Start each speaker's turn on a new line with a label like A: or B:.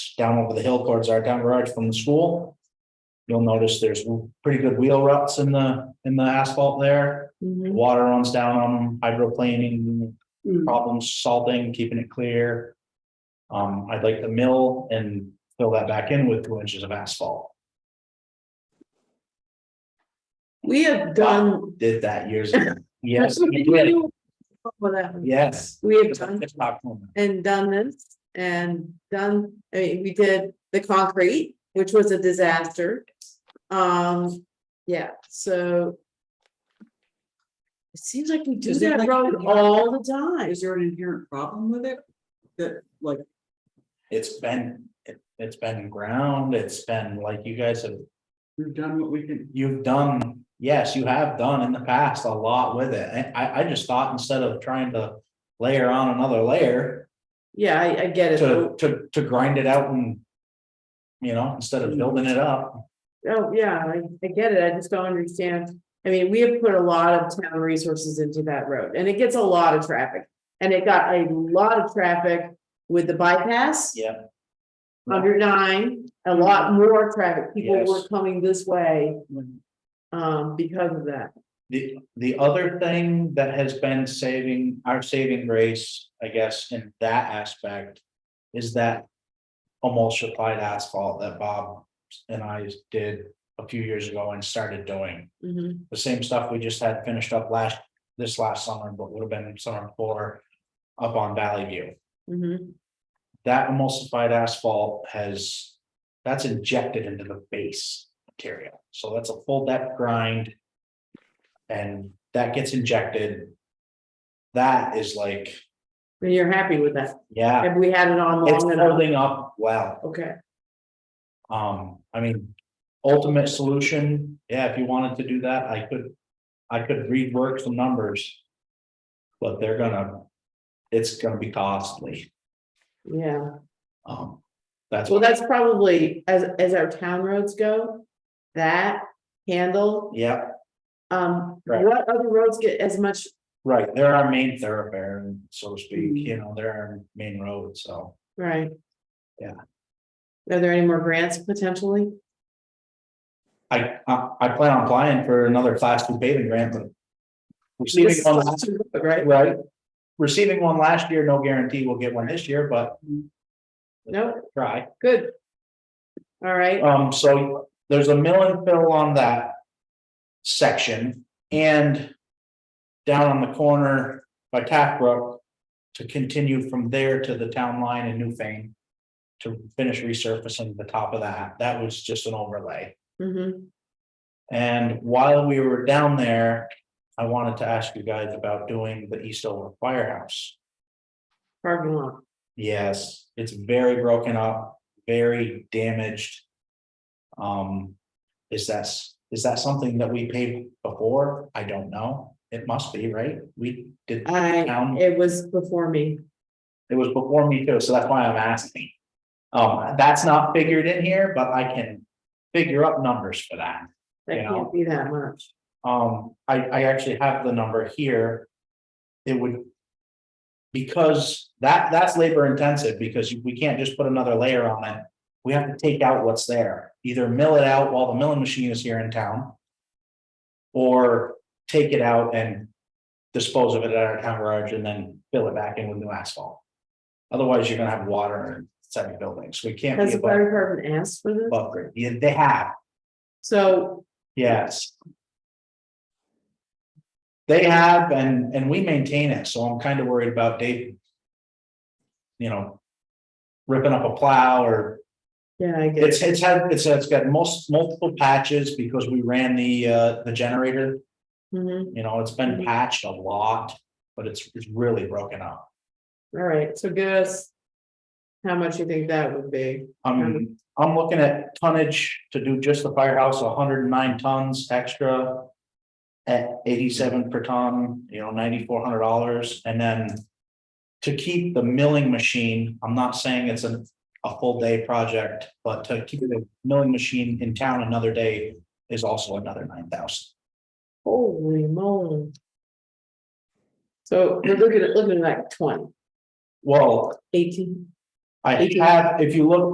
A: which down over the hill towards our town garage from the school. You'll notice there's pretty good wheel ruts in the, in the asphalt there.
B: Mhm.
A: Water runs down on them, hydroplaning,
B: Mm.
A: problems salting, keeping it clear. Um, I'd like to mill and fill that back in with two inches of asphalt.
B: We have done.
A: Did that years ago. Yes, we did.
B: For that one.
A: yes.
B: We have
A: It's a
B: done
A: TikTok moment.
B: and done this and done, I mean, we did the concrete, which was a disaster. Um, yeah, so. It seems like we do
C: Is it
B: that
C: like-
B: road all the time.
C: Is there an inherent problem with it? That like,
A: It's been, it- it's been ground, it's been like you guys have
C: we've done what we can,
A: you've done, yes, you have done in the past a lot with it. And I, I just thought instead of trying to layer on another layer
B: Yeah, I, I get it.
A: to,
B: though.
A: to, to grind it out and, you know, instead
C: Mm.
A: of building it up,
B: Oh, yeah, I, I get it. I just don't understand. I mean, we have put a lot of town resources into that road and it gets a lot of traffic. And it got a lot of traffic with the bypass.
A: yeah, Mm-hmm.
B: Under nine, a lot more traffic, people were
A: Yes. Mm-hmm.
B: coming this way,
C: when-
B: um, because of that.
A: The, the other thing that has been saving, our saving grace, I guess, in that aspect is that emulsified asphalt that Bob and I did a few years ago and started doing.
B: Mhm.
A: the same stuff we just had finished up last, this last summer, but would have been summer before. Up on Valley View,
B: Mhm.
A: that emulsified asphalt has, that's injected into the base material, so that's a full depth grind. And that gets injected. That is like,
B: And you're happy with that?
A: yeah,
B: Have we had it on
A: it's
B: long enough?
A: holding up well.
B: Okay,
A: Um, I mean, ultimate solution, yeah, if you wanted to do that, I could, I could rework some numbers. But they're gonna, it's gonna be costly,
B: yeah.
A: um, that's.
B: Well,
A: what-
B: that's probably, as, as our town roads go, that handle,
A: Yeah,
B: um,
A: Right.
B: what other roads get as much?
A: right, they're our main thoroughfare, so to speak, you know, they're our main road, so.
B: Right.
A: Yeah.
B: Are there any more grants potentially?
A: I, I, I plan on applying for another class two paving grant, but. Receiving
B: This-
A: one last,
B: Right,
A: right, receiving one last year, no guarantee we'll get one this year, but
B: no,
A: try.
B: good. All right,
A: Um, so there's a mill and fill on that section and down on the corner by Taft Brook to continue from there to the town line in Newfane to finish resurfacing the top of that. That was just an overlay.
B: mhm,
A: And while we were down there, I wanted to ask you guys about doing the Eastover Firehouse.
B: parking lot.
A: Yes, it's very broken up, very damaged. Um, is that, s- is that something that we paid before? I don't know. It must be, right? We did,
B: I,
A: town.
B: it was before me.
A: it was before me too, so that's why I'm asking. Um, that's not figured in here, but I can figure up numbers for that.
B: That
A: you know?
B: can't be that much.
A: Um, I, I actually have the number here. It would. Because that, that's labor intensive, because we can't just put another layer on it. We have to take out what's there, either mill it out while the milling machine is here in town. Or take it out and dispose of it at our town garage and then fill it back in with new asphalt. Otherwise, you're gonna have water in seven buildings. We can't
B: Has
A: be
B: the
A: above,
B: fire department asked for this?
A: above grade. Yeah, they have,
B: So,
A: yes. They have and, and we maintain it, so I'm kind of worried about Dave. You know. Ripping up a plow or
B: yeah, I get, it.
A: it's, it's had, it's, it's got most, multiple patches because we ran the, uh, the generator.
B: Mhm.
A: You know, it's been patched a lot, but it's, it's really broken up.
B: all right, so give us how much you think that would be.
A: I'm, I'm looking at tonnage to do just the firehouse, hundred and nine tons extra. At eighty-seven per ton, you know, ninety-four hundred dollars, and then. To keep the milling machine, I'm not saying it's a, a full day project, but to keep the milling machine in town another day is also another nine thousand.
B: Holy moly. So we're looking at, looking at like 20,
A: Well,
B: 18.
A: I
B: Eighteen.
A: have, if you look